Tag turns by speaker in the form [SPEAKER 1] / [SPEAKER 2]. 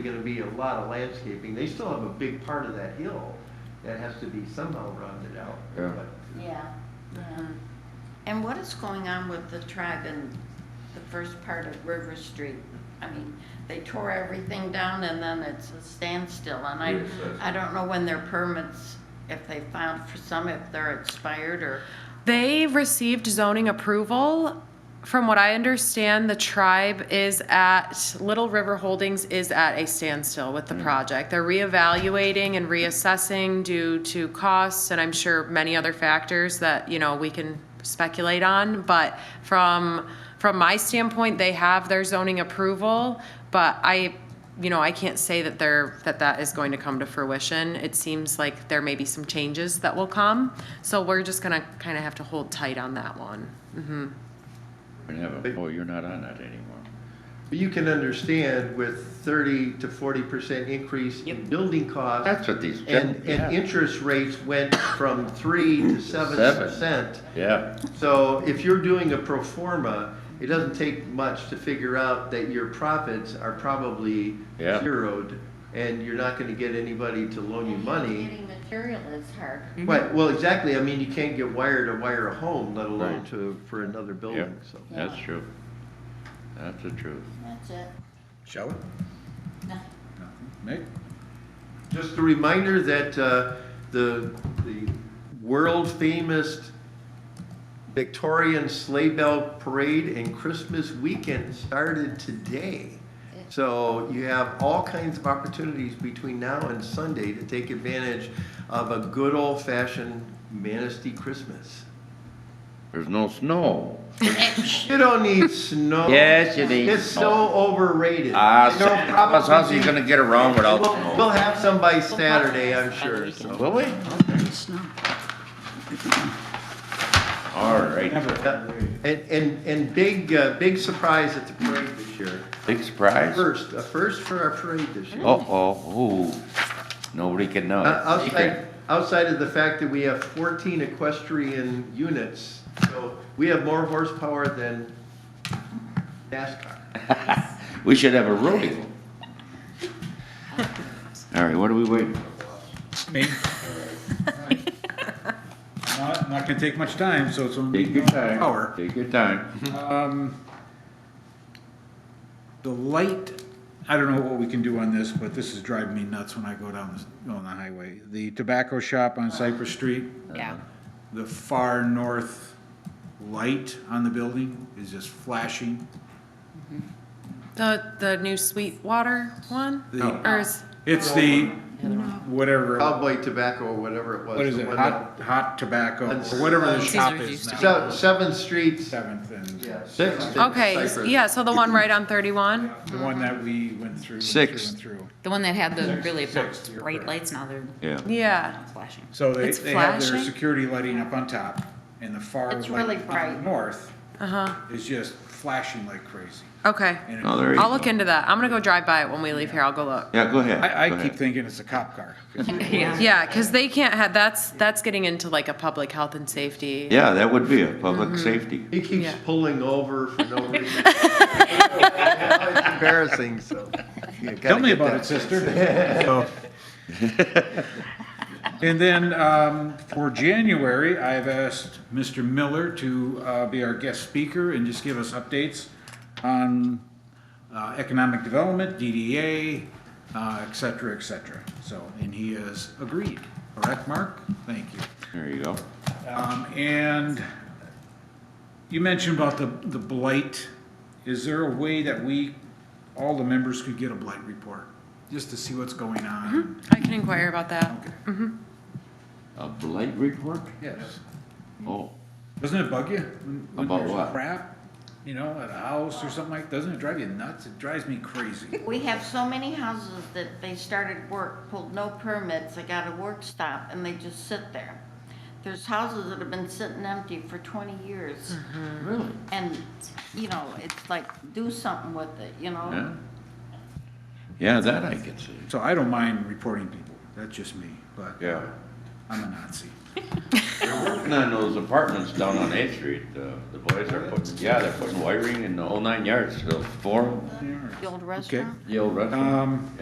[SPEAKER 1] gonna be a lot of landscaping. They still have a big part of that hill that has to be somehow rounded out.
[SPEAKER 2] Yeah.
[SPEAKER 1] But
[SPEAKER 3] Yeah, yeah.
[SPEAKER 4] Um, And what is going on with the tribe in the first part of River Street? I mean, they tore everything down and then it's a standstill, and I,
[SPEAKER 2] Yes, that's-
[SPEAKER 4] I don't know when their permits, if they found for some, if they're expired or,
[SPEAKER 5] They received zoning approval. From what I understand, the tribe is at, Little River Holdings is at a standstill with the project. They're reevaluating and reassessing due to costs and I'm sure many other factors that, you know, we can speculate on. But from, from my standpoint, they have their zoning approval, but I, you know, I can't say that they're, that that is going to come to fruition. It seems like there may be some changes that will come, so we're just gonna kind of have to hold tight on that one. Mhm.
[SPEAKER 2] We have a- oh, you're not on that anymore.
[SPEAKER 1] but you can understand with thirty to forty percent increase in building costs.
[SPEAKER 2] That's what these,
[SPEAKER 1] And, and
[SPEAKER 2] yeah,
[SPEAKER 1] interest rates went from three to seven percent.
[SPEAKER 2] yeah,
[SPEAKER 1] So if you're doing a pro forma, it doesn't take much to figure out that your profits are probably
[SPEAKER 2] Yeah.
[SPEAKER 1] zeroed and you're not gonna get anybody to loan you money.
[SPEAKER 3] Getting material is hard.
[SPEAKER 1] Right, well, exactly, I mean, you can't get wire to wire a home, let alone
[SPEAKER 2] Right.
[SPEAKER 1] to, for another building, so.
[SPEAKER 2] that's true. That's the truth.
[SPEAKER 3] That's it.
[SPEAKER 6] Shall we?
[SPEAKER 3] No.
[SPEAKER 6] Nick?
[SPEAKER 1] Just a reminder that uh, the, the world-famous Victorian Sleigh Bell Parade and Christmas weekend started today. So you have all kinds of opportunities between now and Sunday to take advantage of a good old-fashioned Manistee Christmas.
[SPEAKER 2] There's no snow.
[SPEAKER 1] You don't need snow.
[SPEAKER 2] Yes, you need
[SPEAKER 1] It's so overrated.
[SPEAKER 2] Ah,
[SPEAKER 1] You
[SPEAKER 2] so,
[SPEAKER 1] know, probably-
[SPEAKER 2] how's he gonna get around without
[SPEAKER 1] We'll we'll
[SPEAKER 2] snow?
[SPEAKER 1] have some by Saturday, I'm sure, so.
[SPEAKER 2] Will we? All right,
[SPEAKER 1] Yeah, And, and, and big, uh, big surprise at the parade this year.
[SPEAKER 2] big surprise.
[SPEAKER 1] First, a first for our parade this year.
[SPEAKER 2] Uh-oh, ooh, nobody can know.
[SPEAKER 1] Uh,
[SPEAKER 2] It's
[SPEAKER 1] Outside,
[SPEAKER 2] Oh, secret.
[SPEAKER 1] outside of the fact that we have fourteen equestrian units, so we have more horsepower than NASCAR.
[SPEAKER 2] We should have a rodeo. All right, what are we waiting for?
[SPEAKER 6] Me? Not, not gonna take much time, so it's only.
[SPEAKER 2] Take your time.
[SPEAKER 6] Hour.
[SPEAKER 2] Take your time.
[SPEAKER 6] Um, the light, I don't know what we can do on this, but this is driving me nuts when I go down this, on the highway. The tobacco shop on Cypress Street,
[SPEAKER 4] yeah.
[SPEAKER 6] the far north light on the building is just flashing.
[SPEAKER 5] The, the new Sweetwater one?
[SPEAKER 6] No.
[SPEAKER 5] Or is,
[SPEAKER 6] It's the, whatever,
[SPEAKER 1] Cowboy tobacco or whatever it was.
[SPEAKER 6] what is
[SPEAKER 1] the
[SPEAKER 6] it,
[SPEAKER 1] one that-
[SPEAKER 6] hot, hot tobacco,
[SPEAKER 1] That's-
[SPEAKER 6] or whatever the
[SPEAKER 1] Caesar's
[SPEAKER 6] shop is
[SPEAKER 5] used to
[SPEAKER 6] now.
[SPEAKER 1] Se- Seventh Street.
[SPEAKER 6] Seventh and.
[SPEAKER 1] yeah,
[SPEAKER 2] Sixth.
[SPEAKER 1] Seventh
[SPEAKER 5] okay,
[SPEAKER 1] Cypress.
[SPEAKER 5] yeah, so the one right on thirty-one?
[SPEAKER 6] The one that we went through. and
[SPEAKER 2] Six.
[SPEAKER 6] through and through.
[SPEAKER 7] The one that had the really
[SPEAKER 6] six, you're
[SPEAKER 7] bright
[SPEAKER 6] correct.
[SPEAKER 7] lights, now they're
[SPEAKER 2] Yeah.
[SPEAKER 5] Yeah.
[SPEAKER 7] flashing.
[SPEAKER 6] So they,
[SPEAKER 5] It's
[SPEAKER 6] they have their
[SPEAKER 5] flashing?
[SPEAKER 6] security lighting up on top and the far
[SPEAKER 4] It's
[SPEAKER 6] light
[SPEAKER 4] really
[SPEAKER 6] to the
[SPEAKER 4] bright.
[SPEAKER 6] north
[SPEAKER 5] Uh-huh,
[SPEAKER 6] is just flashing like crazy.
[SPEAKER 5] okay.
[SPEAKER 6] And it-
[SPEAKER 2] Oh, there you
[SPEAKER 5] I'll
[SPEAKER 2] go.
[SPEAKER 5] look into that. I'm gonna go drive by it when we leave here. I'll go look.
[SPEAKER 2] Yeah, go ahead.
[SPEAKER 6] I,
[SPEAKER 2] go
[SPEAKER 6] I keep
[SPEAKER 2] ahead.
[SPEAKER 6] thinking it's a cop car.
[SPEAKER 7] Yeah.
[SPEAKER 5] Yeah, because they can't have, that's, that's getting into like a public health and safety.
[SPEAKER 2] Yeah, that would be a public safety.
[SPEAKER 1] He keeps
[SPEAKER 5] Yeah.
[SPEAKER 1] pulling over for no reason. It's embarrassing, so. you gotta
[SPEAKER 6] Tell me
[SPEAKER 1] get
[SPEAKER 6] about
[SPEAKER 1] that
[SPEAKER 6] it, sister. So- And then um, for January, I've asked Mr. Miller to uh, be our guest speaker and just give us updates on uh, economic development, DDA, uh, et cetera, et cetera. So, and he has agreed. Correct, Mark? Thank you.
[SPEAKER 2] There you go.
[SPEAKER 6] Um, and you mentioned about the, the blight. Is there a way that we, all the members could get a blight report? Just to see what's going on?
[SPEAKER 5] I can inquire about that.
[SPEAKER 6] Okay,
[SPEAKER 2] A blight report?
[SPEAKER 6] yes.
[SPEAKER 2] Oh,
[SPEAKER 6] Doesn't it bug you? when- when
[SPEAKER 2] About
[SPEAKER 6] there's
[SPEAKER 2] what?
[SPEAKER 6] Crap, you know, at a house or something like, doesn't it drive you nuts? It drives me crazy.
[SPEAKER 4] We have so many houses that they started work, pulled no permits, they got a work stop, and they just sit there. There's houses that have been sitting empty for twenty years,
[SPEAKER 2] really?
[SPEAKER 4] and, you know, it's like, do something with it, you
[SPEAKER 2] Yeah.
[SPEAKER 4] know?
[SPEAKER 2] Yeah, that I can see.
[SPEAKER 6] So I don't mind reporting people, that's just me, but
[SPEAKER 2] Yeah.
[SPEAKER 6] I'm a Nazi.
[SPEAKER 2] Working on those apartments down on Eighth Street, uh, the boys are putting, yeah, they're putting wiring in the whole nine yards, so four,
[SPEAKER 4] The old
[SPEAKER 6] Okay.
[SPEAKER 4] restaurant?
[SPEAKER 2] the old restaurant.
[SPEAKER 6] Um,